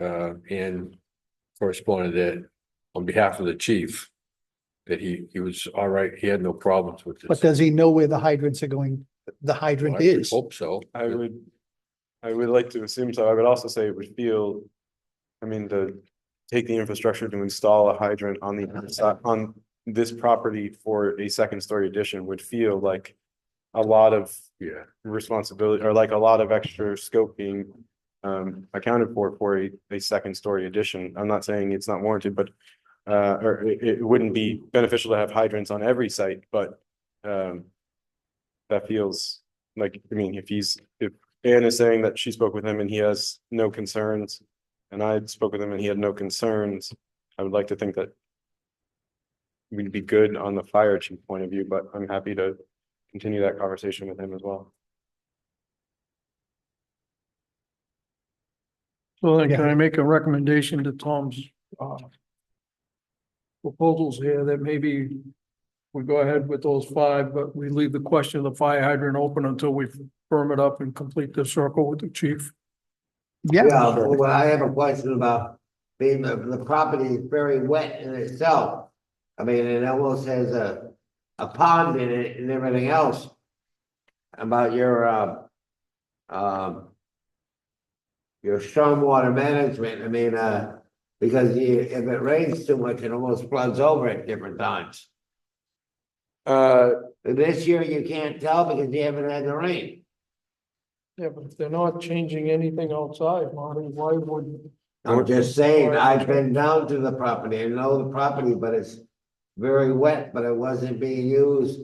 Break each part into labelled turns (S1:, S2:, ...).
S1: uh, and corresponded that on behalf of the chief, that he, he was all right, he had no problems with this.
S2: But does he know where the hydrants are going, the
S1: Well, I
S2: hydrant
S1: would
S2: is?
S1: Hope so.
S3: I would, I would like to assume so. I would also say it would feel, I mean, to take the infrastructure to install a hydrant on the, inside- on this property for a second story addition would feel like a lot of
S1: Yeah,
S3: responsibility or like a lot of extra scope being um accounted for for a, a second story addition. I'm not saying it's not warranted, but uh, or it, it wouldn't be beneficial to have hydrants on every site, but um that feels like, I mean, if he's, if Anne is saying that she spoke with him and he has no concerns and I spoke with him and he had no concerns, I would like to think that we'd be good on the fire chief point of view, but I'm happy to continue that conversation with him as well.
S4: So then
S2: Yeah.
S4: can I make a recommendation to Tom's, uh, proposals here that maybe we go ahead with those five, but we leave the question of the fire hydrant open until we firm it up and complete the circle with the chief?
S5: Yeah,
S2: Yeah,
S5: well, I have a question about being, the, the property is very wet in itself. I mean, it almost has a, a pond in it and everything else. About your, um, um. Your stormwater management, I mean, uh, because you, if it rains too much, it almost floods over at different times.
S3: Uh,
S5: This year you can't tell because you haven't had the rain.
S4: Yeah, but if they're not changing anything outside, Marty, why would?
S5: I'm just saying, I've been down to the property, I know the property, but it's very wet, but it wasn't being used.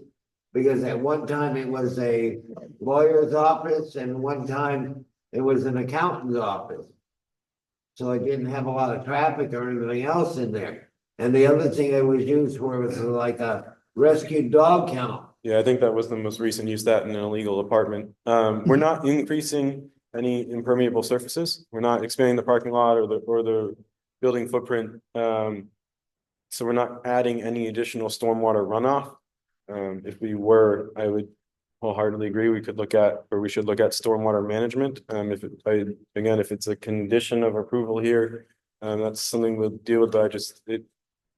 S5: Because at one time it was a lawyer's office and one time it was an accountant's office. So it didn't have a lot of traffic or anything else in there. And the other thing it was used for was like a rescue dog kennel.
S3: yeah, I think that was the most recent use, that in an illegal apartment. Um, we're not increasing any impermeable surfaces. We're not expanding the parking lot or the, or the building footprint. Um, so we're not adding any additional stormwater runoff. Um, if we were, I would wholeheartedly agree, we could look at, or we should look at stormwater management. Um, if, it- I, again, if it's a condition of approval here, um, that's something we'll deal with, but I just, it,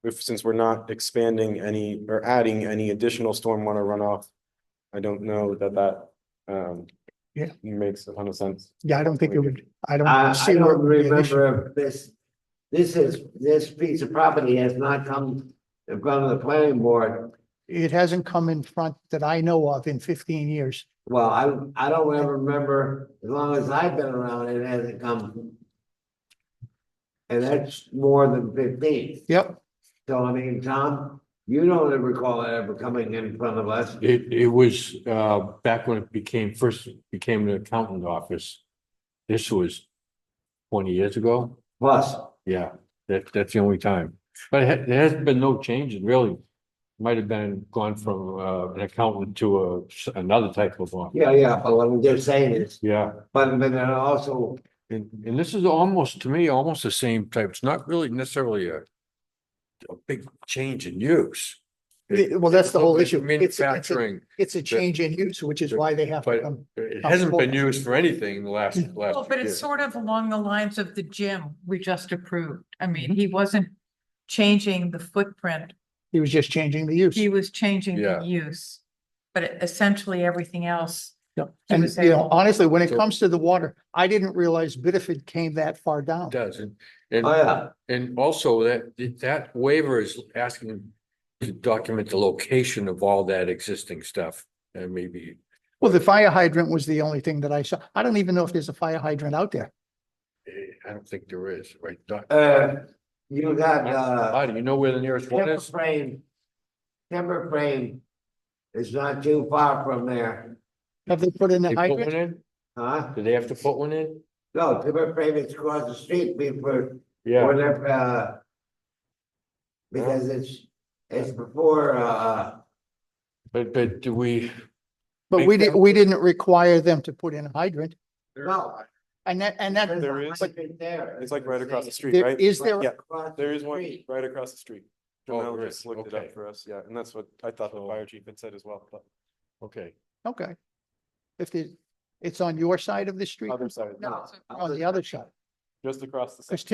S3: if, since we're not expanding any or adding any additional stormwater runoff, I don't know that that, um,
S2: Yeah.
S3: makes a ton of sense.
S2: yeah, I don't think it would, I
S5: I,
S2: don't
S5: I
S2: see where it
S5: don't
S2: would be an issue.
S5: remember if this, this is, this piece of property has not come in front of the planning board.
S2: It hasn't come in front that I know of in fifteen years.
S5: Well, I, I don't ever remember, as long as I've been around, it hasn't come. And that's more than fifteen,
S2: Yep,
S5: so I mean, Tom, you don't ever recall it ever coming in front of us.
S1: it, it was, uh, back when it became, first became an accountant office. This was twenty years ago.
S5: Plus,
S1: Yeah, that, that's the only time. But it ha- there has been no change in really. Might have been gone from, uh, an accountant to a, s- another type of office.
S5: yeah, yeah, but what I'm just saying is,
S1: Yeah,
S5: but but then also,
S1: and, and this is almost, to me, almost the same type. It's not really necessarily a a big change in use.
S2: The- well, that's the whole
S1: It's
S2: issue. It's- it's a-
S1: Manufacturing,
S2: it's a change in use, which is why they have to
S1: But-
S2: come.
S1: it hasn't been used for anything in the last,
S2: Mm.
S1: last.
S6: Well, but it's
S1: year.
S6: sort of along the lines of the gym we just approved. I mean, he wasn't changing the footprint.
S2: He was just changing the use.
S6: He was changing
S1: Yeah.
S6: the use. But essentially everything else,
S2: Yeah.
S6: he
S2: And
S6: was
S2: you know,
S6: able-
S2: honestly, when it
S1: So-
S2: comes to the water, I didn't realize Bitterford came that far down.
S1: It Does, and, and
S5: oh yeah,
S1: And also that, that waiver is asking to document the location of all that existing stuff and maybe.
S2: Well, the fire hydrant was the only thing that I saw. I don't even know if there's a fire hydrant out there.
S1: eh, I don't think there is, right? Doc?
S5: uh, you got, uh.
S1: Marty, you know where the nearest one
S5: Timber
S1: is?
S5: frame. Timber frame is not too far from there,
S2: Have they put in
S1: They
S2: the
S1: put one
S2: hydrant?
S1: in?
S5: huh?
S1: Do they have to put one in?
S5: No, timber frame is across the street, before.
S1: Yeah,
S5: Or they're, uh. Because it's, it's before, uh,
S1: but, but do we,
S2: But
S1: Big
S2: we didn't,
S1: Tim-
S2: we didn't require them to put in a hydrant.
S5: no.
S2: And that, and that,
S3: There is. It's like right across the street,
S2: there,
S3: right?
S2: is there,
S3: Yeah. There is one right across the street.
S1: Oh,
S3: Jamel
S1: there
S3: just
S1: is,
S3: looked it
S1: okay.
S3: up for us, yeah, and that's what I thought the
S1: So-
S3: fire chief had said as well, but
S1: okay,
S2: okay. If there's, it's on your side of the street,
S3: other side.
S6: No, it's
S2: on the other side.
S7: just across the.
S3: Because